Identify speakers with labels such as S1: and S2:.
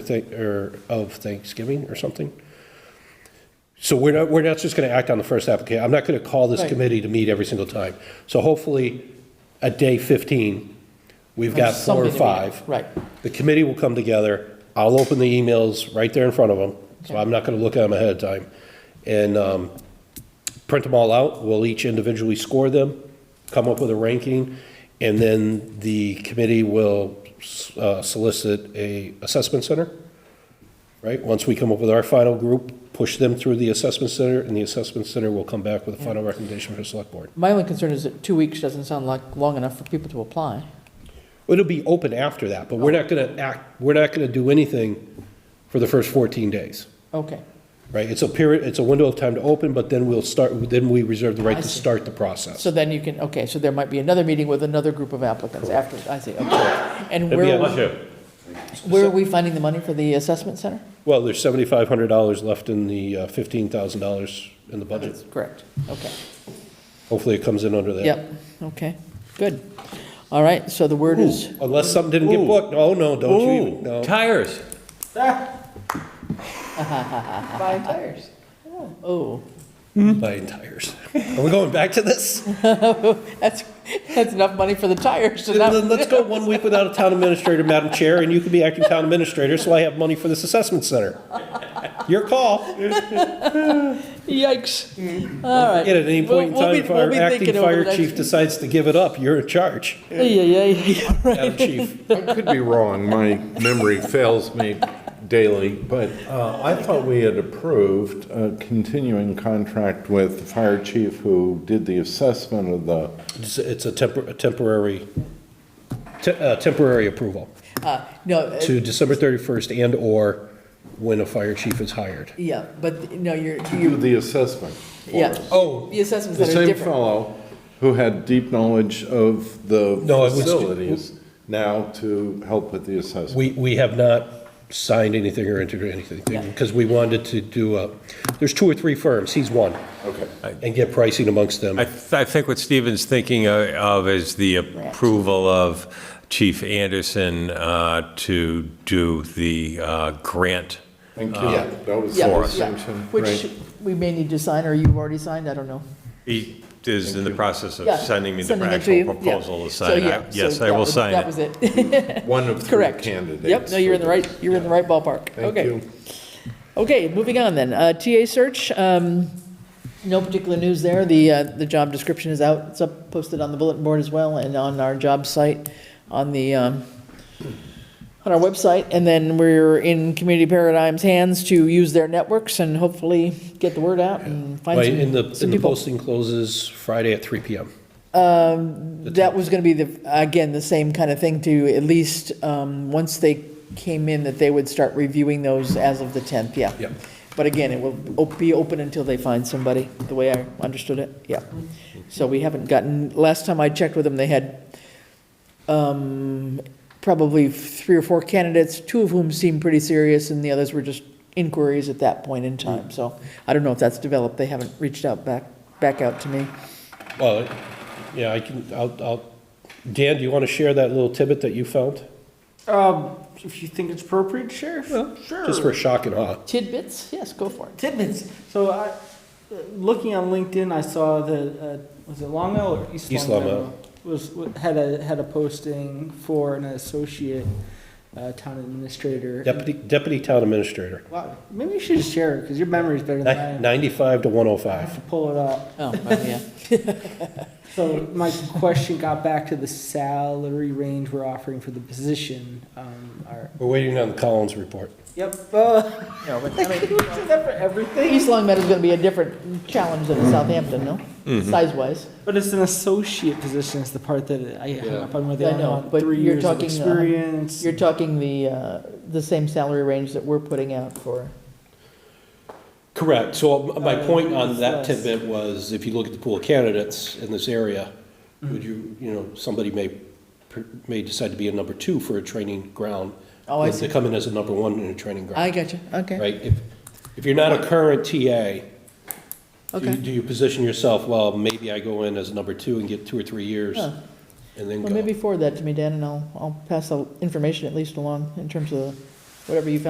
S1: Thank- or of Thanksgiving or something. So we're not, we're not just going to act on the first application. I'm not going to call this
S2: Right.
S1: committee to meet every single time. So hopefully, at day 15, we've got
S2: There's
S1: four or
S2: something to read.
S1: five.
S2: Right.
S1: The committee will come together. I'll open the emails right there in front of them, so I'm not going to look at them ahead of time. And um, print them all out. We'll each individually score them, come up with a ranking, and then the committee will uh, solicit a assessment center right? Once we come up with our final group, push them through the assessment center, and the assessment center will come back with a final recommendation for the select board.
S2: My only concern is that two weeks doesn't sound like long enough for people to apply.
S1: It'll be open after that, but we're not gonna act, we're not gonna do anything for the first fourteen days,
S2: Okay,
S1: right? It's a period, it's a window of time to open, but then we'll start, then we reserve the right
S2: I
S1: to
S2: see.
S1: start the process.
S2: so then you can, okay, so there might be another meeting with another group of applicants after, I see, okay. And
S1: It'd be
S2: where,
S1: a-
S2: where are we finding the money for the assessment center?
S1: Well, there's seventy-five hundred dollars left in the uh, fifteen thousand dollars in the budget.
S2: That's Correct, okay.
S1: Hopefully it comes in under that.
S2: Yep, okay, good. All right, so the word is,
S1: Unless something didn't get
S3: Ooh.
S1: booked. Oh, no, don't you, even- no.
S3: Ooh, tires.
S4: Buying tires.
S2: oh,
S1: Buying tires. Are we going back to this?
S2: oh, that's, that's enough money for the tires to
S1: Then
S2: not,
S1: let's go one week without a town administrator, Madam Chair, and you can be acting town administrator, so I have money for this assessment center. Your call.
S2: yikes. All
S1: Yet
S2: right.
S1: Mm-hmm. at any point in
S2: We'll- we'll
S1: time,
S2: be-
S1: if
S2: we'll
S1: our
S2: be
S1: acting
S2: thinking over the
S1: fire
S2: next-
S1: chief decides to give it up, you're in charge,
S2: Yeah, yeah, yeah, yeah,
S1: Madam Chief.
S3: I could be wrong, my memory fails me daily, but uh, I thought we had approved a continuing contract with the fire chief who did the assessment of the,
S1: It's it's a tempor- a temporary, te- uh, temporary approval
S2: Uh, No,
S1: to December 31st and/or when a fire chief is hired.
S2: Yeah, but, no, you're,
S3: do
S2: you,
S3: the assessment for
S2: yeah.
S3: us.
S1: Oh.
S2: The assessments
S3: The
S2: that are
S3: same
S2: different.
S3: fellow who had deep knowledge of the
S1: No, it was-
S3: facilities now to help with the assessment.
S1: We, we have not signed anything or entered anything,
S2: Yeah.
S1: because we wanted to do, a- there's two or three firms, he's one,
S3: Okay.
S1: and get pricing amongst them.
S5: I, th- I think what Stephen's thinking o- of is the approval of Chief Anderson uh, to do the uh, grant.
S3: Thank you. That was
S2: Yeah,
S3: the
S2: yeah,
S3: assumption.
S2: Which
S3: Right.
S2: we may need to sign, or you've already signed, I don't know.
S5: He is in the process of
S2: Yeah,
S5: sending me the
S2: sending it to
S5: actual
S2: you, yeah.
S5: proposal to
S2: So,
S5: sign.
S2: yeah,
S5: I-
S2: so
S5: Yes, I
S2: that
S5: will
S2: was-
S5: sign
S2: That
S5: it.
S2: was it,
S3: One of three
S2: correct.
S3: candidates.
S2: Yep, no, you're in the
S3: for
S2: right, you're in the right ballpark,
S3: Thank
S2: okay.
S3: you.
S2: Okay, moving on then, Uh, TA search, um, no particular news there, the, uh, the job description is out, it's up, posted on the bulletin board as well, and on our job site, on the, um, on our website, and then we're in Community Paradigm's hands to use their networks and hopefully get the word out and find
S1: Right, and the,
S2: some, some
S1: and the
S2: people.
S1: posting closes Friday at three PM.
S2: That was gonna be the, again, the same kind of thing to, at least, um, once they came in, that they would start reviewing those as of the tenth, yeah.
S1: Yep.
S2: But again, it will op- be open until they find somebody, the way I understood it, yeah. So we haven't gotten, last time I checked with them, they had, um, probably three or four candidates, two of whom seemed pretty serious, and the others were just inquiries at that point in time, so I don't know if that's developed, they haven't reached out back, back out to me.
S1: Well, yeah, I can, I'll, I'll, Dan, do you want to share that little tidbit that you found?
S4: Um, if you think it's appropriate, Sheriff, sure.
S1: Just for shock and awe.
S2: Tidbits, yes, go for it.
S4: Tidbits. So I, uh, looking on LinkedIn, I saw the, uh, was it Long Meadow or East Long
S1: East Long
S4: Meadow?
S1: Meadow.
S4: Was, wa- had a, had a posting for an associate, uh, town administrator.
S1: Deputy, deputy town administrator,
S4: Wow, maybe you should just share it, because your memory's better than
S1: Ni-
S4: mine.
S1: ninety-five to one oh
S4: I have
S1: five.
S4: to pull it up.
S2: Oh, right, yeah.
S4: So my question got back to the salary range we're offering for the position, um, our,
S1: We're waiting on the Collins report.
S4: yep, uh, I think we do that for everything.
S2: East Long Meadow's gonna be a different challenge than Southampton, no? Size-wise.
S4: But it's an associate position is the part that I hung up on where they
S2: I
S4: only
S2: know,
S4: want
S2: but
S4: three
S2: you're
S4: years
S2: talking,
S4: of
S2: uh,
S4: experience.
S2: You're talking the, uh, the same salary range that we're putting out for.
S1: Correct, so my
S4: Uh,
S1: point on that
S4: yes.
S1: tidbit was, if you look at the pool of candidates in this area, would you, you know, somebody may, per- may decide to be a number two for a training ground.
S2: Oh, I
S1: They come in as a number one in a training ground.
S2: I got you, okay,
S1: right? If, if you're not a current TA, do you,
S2: okay.
S1: do you position yourself, well, maybe I go in as number two and get two or three years
S2: Huh.
S1: and then
S2: Well,
S1: go?
S2: maybe forward that to me, Dan, and I'll, I'll pass the information at least along in terms of whatever you found